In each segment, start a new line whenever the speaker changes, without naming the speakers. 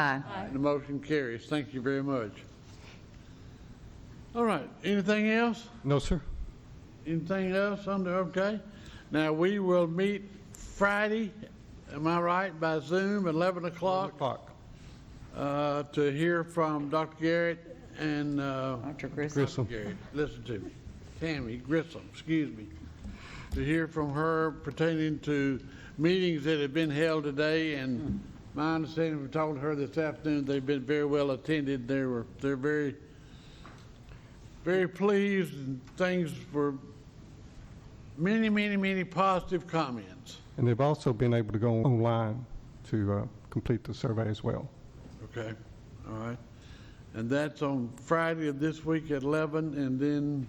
Aye.
The motion carries. Thank you very much. All right, anything else?
No, sir.
Anything else under, okay? Now, we will meet Friday, am I right, by Zoom, 11 o'clock,
Clock.
uh, to hear from Dr. Garrett and, uh,
Dr. Grissom.
Grissom.
Garrett, listen to me, Tammy Grissom, excuse me, to hear from her pertaining to meetings that have been held today, and my understanding from talking to her this afternoon, they've been very well attended, they were, they're very, very pleased, and things were, many, many, many positive comments,
And they've also been able to go online to uh, complete the survey as well.
okay, all right? And that's on Friday of this week at 11, and then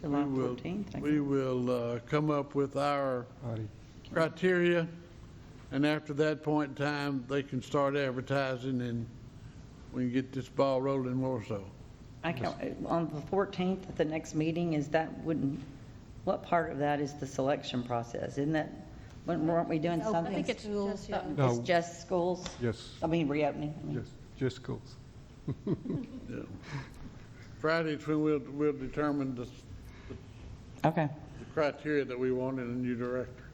July
we will,
14th. I
we
guess.
will uh, come up with our
Alrighty.
criteria, and after that point in time, they can start advertising, and we can get this ball rolling more so.
I can, on the 14th, at the next meeting, is that, wouldn't, what part of that is the selection process? Isn't that, weren't- weren't we doing
Oh,
something?
I think it's schools, yeah.
No.
It's just schools?
Yes,
I mean, reopening? I mean.
yes, just schools.
Yeah. Friday's when we'll, we'll determine the, the
Okay.
criteria that we want in a new director.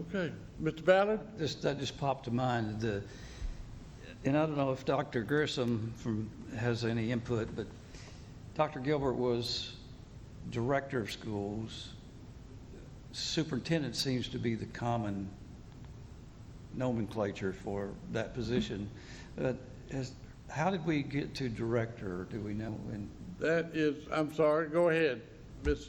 Okay, Mr. Ballard?
This, that just popped to mind, the, and I don't know if Dr. Grissom from, has any input, but Dr. Gilbert was director of schools. Superintendent seems to be the common nomenclature for that position. But has, how did we get to director, do we know? And
That is, I'm sorry, go ahead, Ms.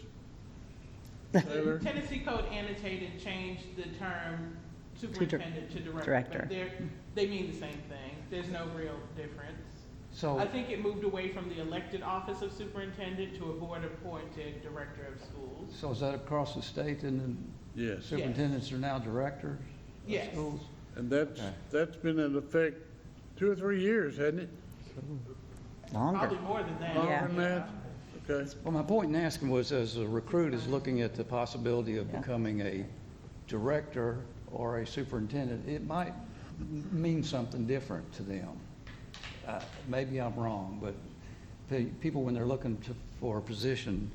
Taylor.
Tennessee Code annotated changed the term superintendent to director.
director.
But they're, they mean the same thing. There's no real difference.
so.
I think it moved away from the elected office of superintendent to a board-appointed director of schools.
So is that across the state and then
Yes.
superintendents are now directors
Yes.
of schools?
And that's,
Okay.
that's been in effect two or three years, hasn't it?
Probably more than that.
Longer than that? Okay.
Well, my point in asking was, as a recruit is looking at the possibility of
Yeah.
becoming a director or a superintendent, it might m- mean something different to them. Uh, Maybe I'm wrong, but pe- people, when they're looking to- for positions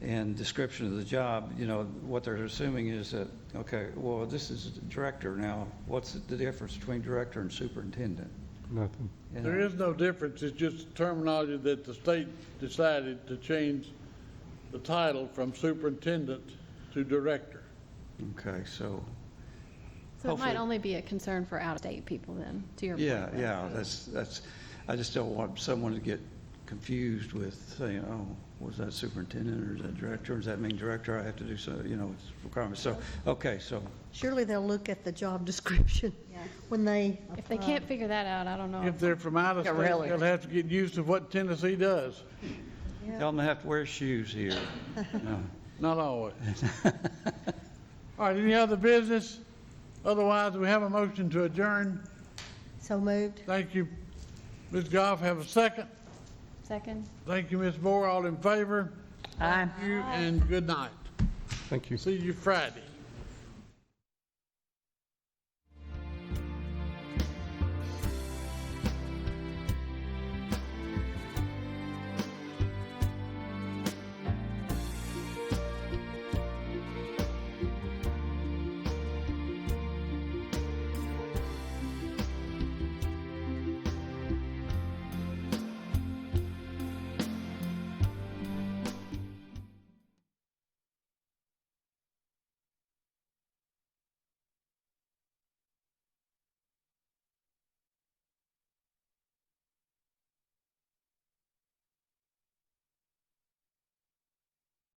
and description of the job, you know, what they're assuming is that, okay, well, this is director now, what's the difference between director and superintendent?
Nothing.
You
There
know?
is no difference, it's just terminology that the state decided to change the title from superintendent to director.
Okay, so,
So it
Hopefully.
might only be a concern for out-of-state people then, to your point.
Yeah, yeah, that's, that's, I just don't want someone to get confused with saying, oh, was that superintendent or is that director? Does that mean director? I have to do so, you know, it's requirement. So, okay, so,
Surely they'll look at the job description when they
If they
apply.
can't figure that out, I don't know.
If they're from out of
Oh. Yeah,
state,
really.
they'll have to get used to what Tennessee does.
tell them they have to wear shoes here. No.
Not always. All right, any other business? Otherwise, we have a motion to adjourn.
So moved.
Thank you, Ms. Goff, have a second.
Second?
Thank you, Ms. Moore, all in favor?
Aye.
You, and good night.
Thank you.
See you Friday.